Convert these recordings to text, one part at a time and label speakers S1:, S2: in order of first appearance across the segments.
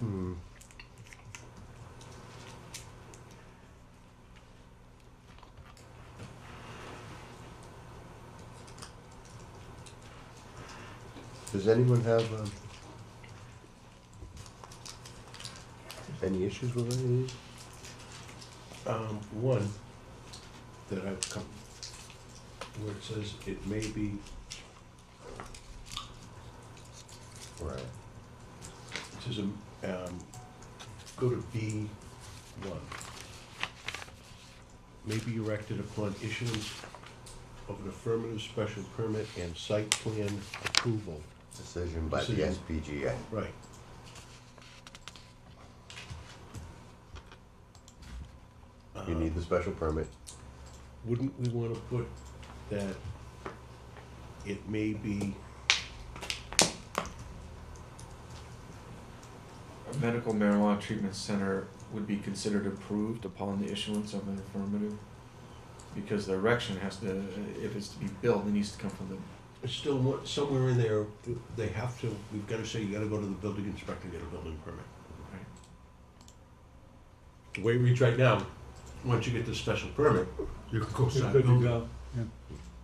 S1: Hmm. Does anyone have, um, any issues with any of these?
S2: Um, one that I've come, where it says it may be,
S1: Right.
S2: it says, um, um, go to B one. May be erected upon issuance of an affirmative special permit and site plan approval.
S1: Decision by the
S2: Decision.
S1: SPGA.
S2: Right.
S1: You need
S2: Um,
S1: the special permit.
S2: Wouldn't we wanna put that it may be,
S3: A medical marijuana treatment center would be considered approved upon the issuance of an affirmative. Because the erection has to, if it's to be built, it needs to come from the,
S2: it's still what, somewhere in there, they have to, we've gotta say, you gotta go to the building inspector, and get a building permit.
S3: right?
S2: The way we reach right now, once you get the special permit, you can go start building.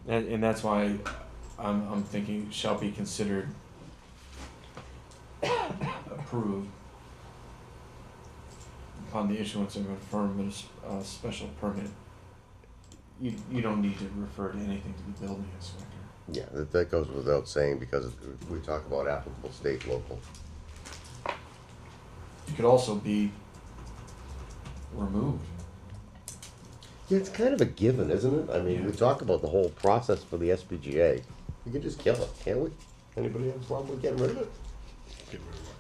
S3: And, and that's why I'm, I'm thinking shall be considered approved upon the issuance of an affirmative, uh, special permit. You, you don't need to refer to anything to the building inspector.
S1: Yeah, that, that goes without saying because we talk about applicable state, local.
S3: It could also be removed.
S1: Yeah, it's kind of a given, isn't it? I mean, we
S3: Yeah.
S1: talk about the whole process for the SPGA. We can just kill it, can't we? Anybody have a problem with getting rid of it?
S2: Get rid of it.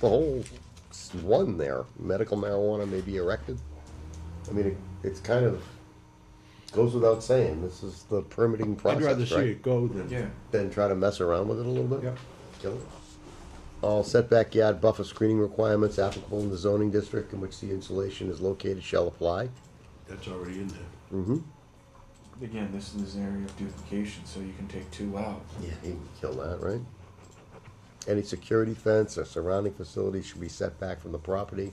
S1: The whole s- one there, medical marijuana may be erected. I mean, it, it's kind of goes without saying. This is the permitting
S2: I'd
S1: process,
S2: rather see
S1: right?
S2: it go than.
S3: Yeah.
S1: Then try to mess around with it a little bit. Kill it. All setback yard buffer screening requirements applicable in the zoning district in which the installation is located shall apply.
S2: That's already in there.
S1: Mm-hmm.
S3: Again, this is an area of duplication, so you can take two out.
S1: Yeah, he can kill that, right? Any security fence or surrounding facility should be set back from the property.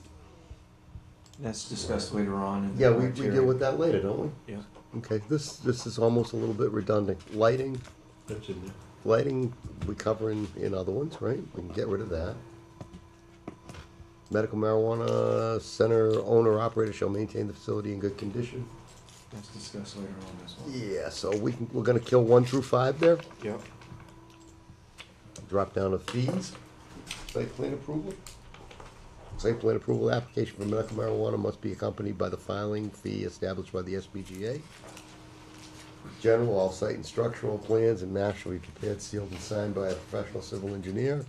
S3: That's discussed later on in the
S1: Yeah, we, we
S3: criteria.
S1: deal with that later, don't we?
S3: Yeah.
S1: Okay, this, this is almost a little bit redundant. Lighting,
S2: That's in there.
S1: lighting, we cover in, in other ones, right? We can get rid of that. Medical marijuana center owner operator shall maintain the facility in good condition.
S3: That's discussed later on as well.
S1: Yeah, so we can, we're gonna kill one through five there,
S3: Yep.
S1: drop down to fees. Site plan approval? Site plan approval application for medical marijuana must be accompanied by the filing fee established by the SBGA. General, all site and structural plans and maps shall be prepared, sealed, and signed by a professional civil engineer.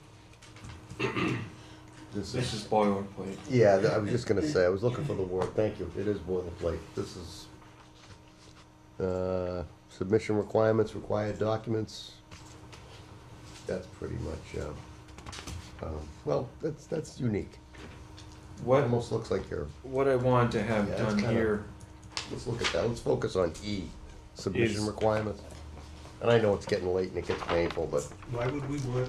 S1: This
S3: This is
S1: is,
S3: boilerplate.
S1: yeah, th- I was just gonna say, I was looking for the word, thank you, it is boilerplate, this is, uh, submission requirements, required documents, that's pretty much, uh, um, well, that's, that's unique.
S3: What
S1: Almost looks like you're,
S3: what I wanted to have
S1: Yeah, it's
S3: done
S1: kinda-
S3: here
S1: let's look at that, let's focus on E, submission
S3: Is-
S1: requirements. And I know it's getting late and it gets painful, but
S2: Why would we want,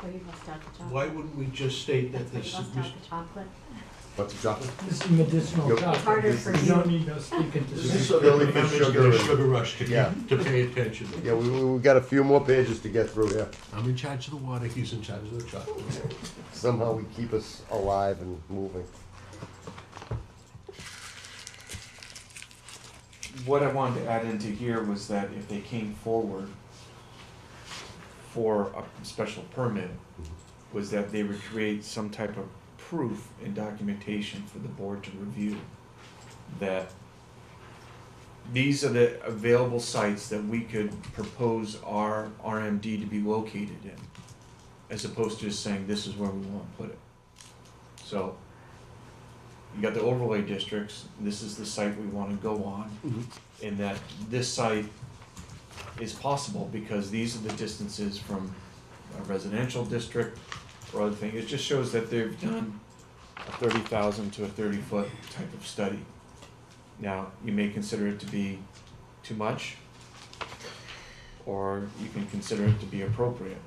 S4: Where you must have the chocolate.
S2: why wouldn't we just state that
S4: That's
S2: the
S4: where you must
S2: submission?
S4: have the chocolate.
S1: what's the chocolate?
S5: This is medicinal
S1: Yep.
S5: chocolate.
S4: Harder for
S5: You
S4: you.
S5: don't need no speaking to.
S2: This is
S5: this.
S2: so that
S1: Really
S2: the
S1: for
S2: members get
S1: sugar
S2: a
S1: and-
S2: sugar rush to
S1: Yeah.
S2: keep, to pay attention.
S1: Yeah, we, we, we got a few more pages to get through here.
S2: I'm in charge of the water, he's in charge of the chocolate.
S1: somehow we keep us alive and moving.
S3: what I wanted to add into here was that if they came forward for a special permit, was that they would create some type of proof and documentation for the board to review that these are the available sites that we could propose our RMD to be located in, as opposed to just saying, this is where we want to put it. So, you got the overlay districts, this is the site we want to go on, in that this site is possible because these are the distances from a residential district or other thing. It just shows that they've done a thirty thousand to a thirty foot type of study. Now, you may consider it to be too much, or you can consider it to be appropriate.